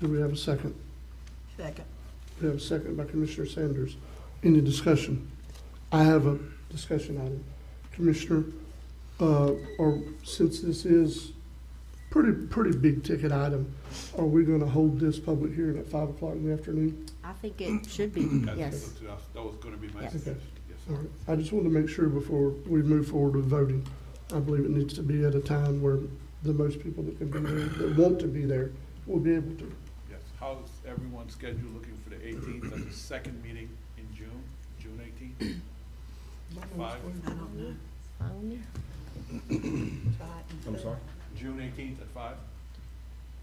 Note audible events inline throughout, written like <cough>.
Do we have a second? Second. We have a second by Commissioner Sanders. Any discussion? I have a discussion item. Commissioner, uh, or since this is pretty, pretty big ticket item, are we gonna hold this public hearing at five o'clock in the afternoon? I think it should be, That's- yes. that's- That was gonna be my Yes. suggestion, yes, All sir. right. I just want to make sure before we move forward with voting, I believe it needs to be at a time where the most people that can be there, that want to be there, will be able to. yes. How's everyone's schedule looking for the eighteenth, that's the second meeting in June, June eighteenth? Five, I don't know. Try it and I'm see. sorry? June eighteenth at five?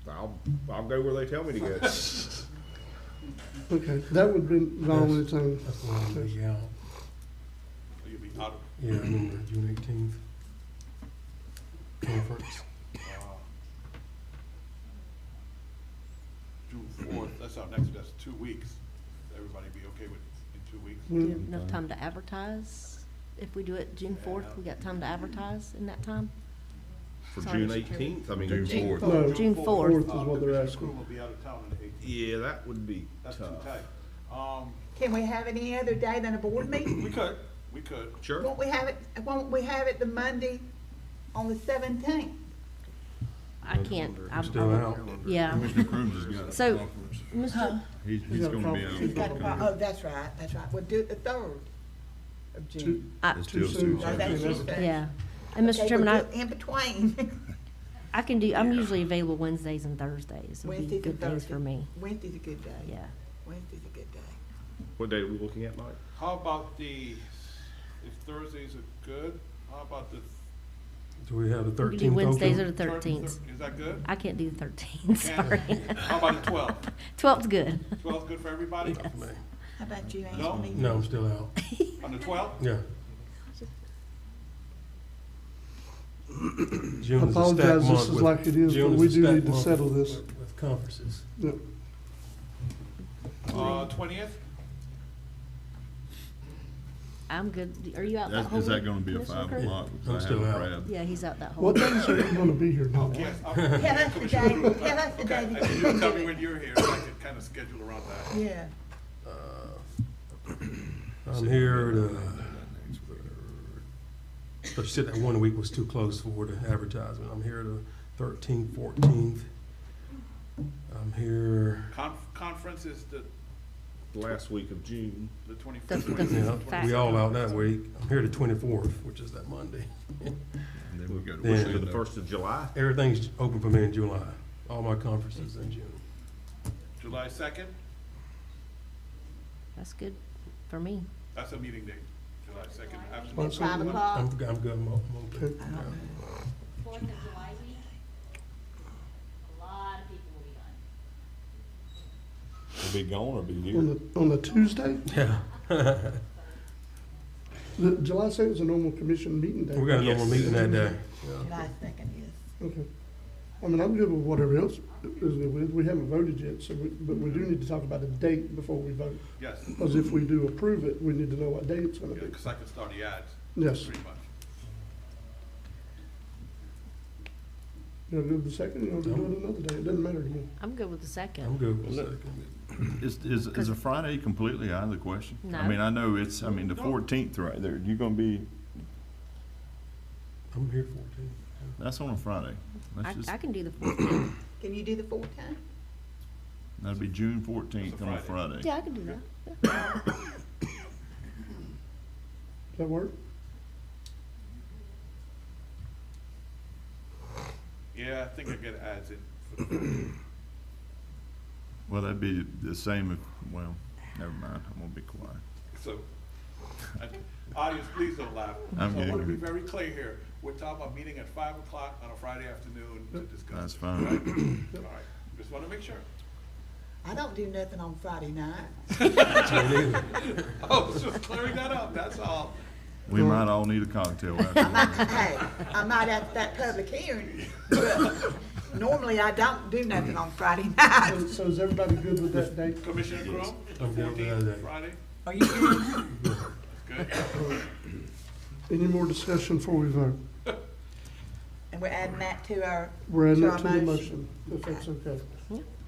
I'll, I'll go where they tell me to go. Okay, that would be the only thing. That's the one we out, Or You'll be out of, yeah, I remember June eighteenth conference. uh, June fourth, that's our next, that's two weeks. Everybody be okay with, in two weeks? Do Well, you have Mm-hmm. enough time to advertise? If we do it June fourth, we got time to advertise in that time? For Sorry. June eighteenth, I mean. June No. fourth, June fourth. fourth. is what they're asking. Uh, Commissioner Crew will be out of town on the eighteenth, Yeah, that would be that's too tough. tight. Um, Can we have any other day than a board meeting? we could, we could, Sure. Won't we have it, won't we have it the Monday on the seventeenth? I can't, I'm, Still out. yeah. Commissioner Crooms has got. So- conference. Mr. He's, he's got a gonna be conference. out. He's Got a pro- Oh, that's right, that's right. We'll do it the third of Too June. I- It's too still too soon. Oh, tight. that's Okay. Tuesday. Yeah, and Okay, Mr. Chairman, we'll I, do it In <laughs> between, I can do, I'm usually available Wednesdays and Thursdays, would be Wednesdays and good days for Thursdays. me, Wednesday's a good day. yeah. Wednesday's a good day. What date are we looking at, Mike? How about the, if Thursdays are good, how about the? Do we have the We thirteenth can do Wednesdays or open? the thir- thirteenth. thir- Is that good? I can't do the thirteenth, sorry. <laughs> How about the twelfth? Twelfth's good. Twelfth good for everybody? Not for me. How about you, No. Anthony? No, I'm still out, On the twelfth? yeah. June is a stack Apologize, this month is with- like it is, but June is we a do stack need to month settle with- this. With conferences. Yeah. Uh, twentieth? I'm good, are you out that That's- whole? Is that week, gonna be a Commissioner five Kirk? o'clock? 'Cause I'm I have still a out. crab. Yeah, he's out that whole. What week. days are you gonna be here, Donna? Yes. I'll- Tell us the Commissioner day. Crew, Tell us the okay, day and that you you tell do me it. when you're here, so I can kind of schedule around that. Yeah, I'm here to, but you said that one week was too close for the advertisement. I'm here to thirteenth, fourteenth. I'm here, Conf- conference is the, Last week of June. the The- twenty-fifth. the yeah, fact- we all out that week. I'm here to twenty-fourth, which is that Monday. And then we go to Then- For the Orlando. first of July. Everything's open for me in July, all my conferences in June. July second, That's good for me. that's a meeting date, July second. at five o'clock. I'm, I'm good, I'm I open. don't know. Fourth of July week, a lot of people will be gone. Will be gone or be On the, on the Tuesday? Yeah, <laughs> The July second is a normal commission meeting day. we got a normal meeting that day. July second is. Okay. I mean, I'm good with whatever else is good with. We haven't voted yet, so we, but we do need to talk about a date before we vote. Yes, Because if we do approve it, we need to know what date it's gonna be. because I can start the ads, Yes. pretty much. You'll do the second, you'll do it another day. It doesn't matter to me. I'm good with the I'm Oh, second. good with the second. Is, is, is a Friday completely out of the question? No. I mean, I know it's, I mean, the fourteenth right there, you're gonna be, I'm here fourteen. that's on a Friday. I, That's just, I can do the fourteenth. Can you do the fourteenth? that'd be June fourteenth It's a on a Friday. Friday. Yeah, I can do that. Does that work? Yeah, I think I get ads in for the Well, that'd be the same, if- well, never mind, I'm gonna be quiet. So, and audience, please don't laugh. I'm So I want to getting- be very clear here. We're talking about meeting at five o'clock on a Friday afternoon to That's discuss. fine. All right, just want to make sure. I don't do nothing on Friday night. Oh, <laughs> was just clearing that up, that's all. We might all need a cocktail I <laughs> might, after. hey, I might at that public hearing, <laughs> but normally I don't do nothing on Friday So- night. So is everybody good with that date? Commissioner Crum, I'm good with fourteenth, that day. Friday, Are you kidding? good. Any more discussion before we vote? And we're adding that to our, We're adding To it our to the motion. motion, if that's okay.